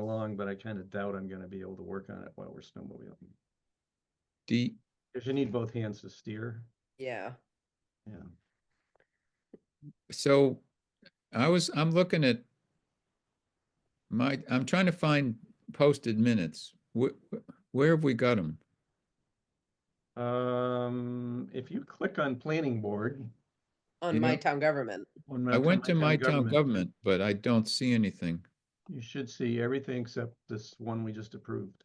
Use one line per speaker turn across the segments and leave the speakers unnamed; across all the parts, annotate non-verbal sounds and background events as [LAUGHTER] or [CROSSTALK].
along, but I kind of doubt I'm gonna be able to work on it while we're snowmobiling.
Do you,
Cause you need both hands to steer,
Yeah,
yeah.
so I was, I'm looking at my, I'm trying to find posted minutes. Where, where have we got them?
Um, if you click on planning board.
on
You
my
know-
town government.
on my-
I went to my town
government,
government, but I don't see anything.
You should see everything except this one we just approved.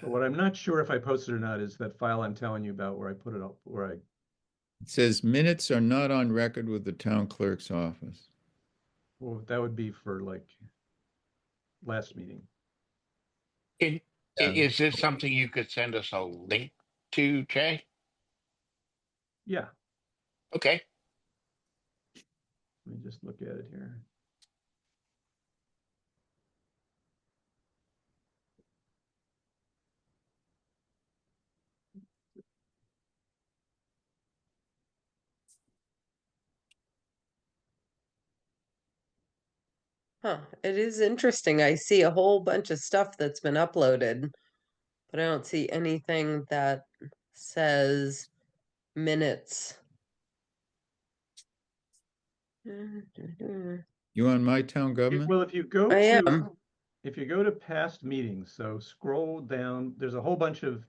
But what I'm not sure if I posted or not is that file I'm telling you about where I put it up, where I,
It says minutes are not on record with the town clerk's office.
well, that would be for like last meeting.
Is, i-
Yeah.
is this something you could send us a link to, Jay?
Yeah,
Okay,
let me just look at it here.
Huh, it is interesting. I see a whole bunch of stuff that's been uploaded. But I don't see anything that says minutes. [LAUGHS] I
You on my town
If-
government?
Well, if you go to,
am.
if you go to past meetings, so scroll down, there's a whole bunch of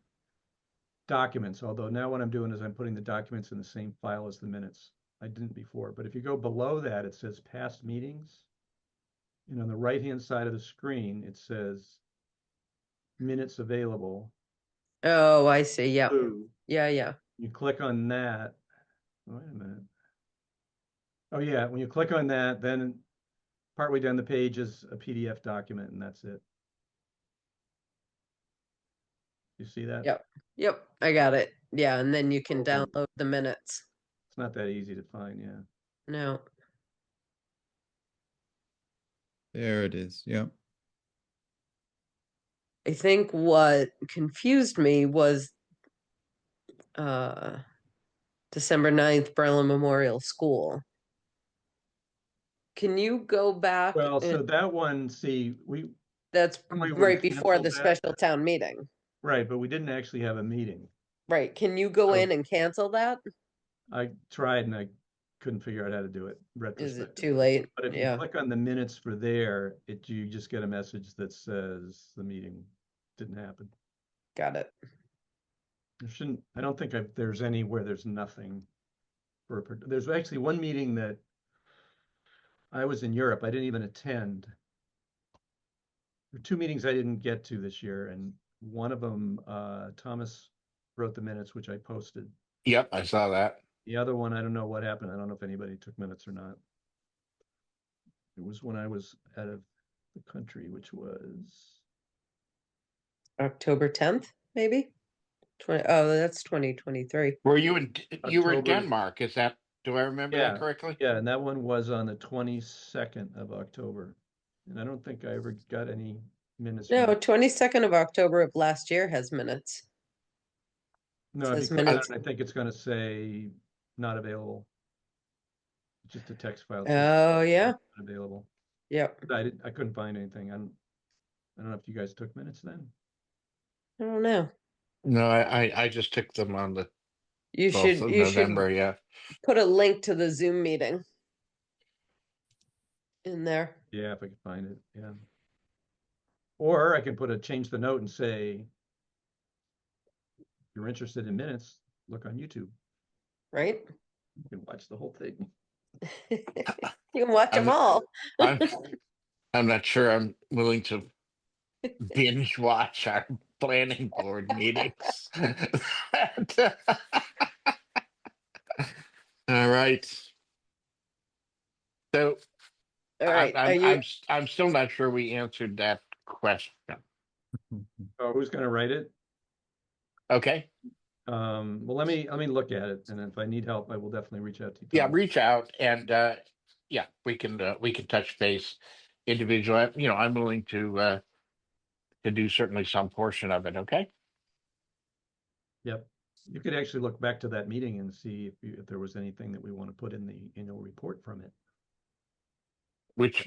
documents, although now what I'm doing is I'm putting the documents in the same file as the minutes. I didn't before, but if you go below that, it says past meetings. And on the right-hand side of the screen, it says minutes available.
Oh, I see. Yeah,
Blue.
yeah, yeah.
You click on that. Wait a minute. Oh yeah, when you click on that, then partway down the page is a PDF document and that's it. You see that?
Yep. Yep, I got it. Yeah, and then you can
Okay.
download the minutes.
It's not that easy to find, yeah.
No,
There it is, yeah.
I think what confused me was uh December 9th, Berlin Memorial School. Can you go back?
Well, so
and-
that one, see, we,
That's
we would
right before
cancel
the
that.
special town meeting,
right, but we didn't actually have a meeting.
right? Can you go
So-
in and cancel that?
I tried and I couldn't figure out how to do it
Is
retrospectively.
it too late?
But if you
Yeah,
click on the minutes for there, it, you just get a message that says the meeting didn't happen.
got it.
There shouldn't, I don't think I've, there's any where there's nothing. For, a part- there's actually one meeting that. I was in Europe, I didn't even attend. There were two meetings I didn't get to this year and one of them, uh, Thomas wrote the minutes, which I posted.
yep, I saw that.
The other one, I don't know what happened, I don't know if anybody took minutes or not. It was when I was out of the country, which was,
October 10th, maybe? 20, oh, that's 2023.
Were you in, D- you were in
October.
Denmark, is that, do I remember that
Yeah.
correctly?
yeah, and that one was on the twenty-second of October. And I don't think I ever got any minutes. from
No,
that.
22nd of October of last year has minutes.
No, if
says
you click on
minutes.
it, I think it's gonna say not available. It's Just a text file. that says
Oh, yeah,
not Available.
yep.
But I didn't, I couldn't find anything. I'm, I don't know if you guys took minutes then.
I don't know.
No, I, I, I just took them on the
You should,
twelfth of
you should
November, yeah.
put a link to the Zoom meeting in there.
Yeah, if I could find it, yeah. Or I can put a, change the note and say, if you're interested in minutes, look on YouTube.
right?
You can watch the whole thing.
you can watch
I'm
them
not-
all.
I'm, I'm not sure I'm willing to binge watch our planning board meetings. [LAUGHS] All right. So
All
I-
right. Are
I'm,
you,
I'm, s- I'm still not sure we answered that question.
Hmm.
Oh, who's gonna write it?
Okay,
Um, well, let me, let me look at it, and if I need help, I will definitely reach out to you.
yeah,
Mm-hmm.
Tom.
reach out and, uh, yeah, we can, uh, we can touch base individually. You know, I'm willing to, uh, to do certainly some portion of it, okay?
Yep. You could actually look back to that meeting and see if you, if there was anything that we want to put in the annual report from it.
Which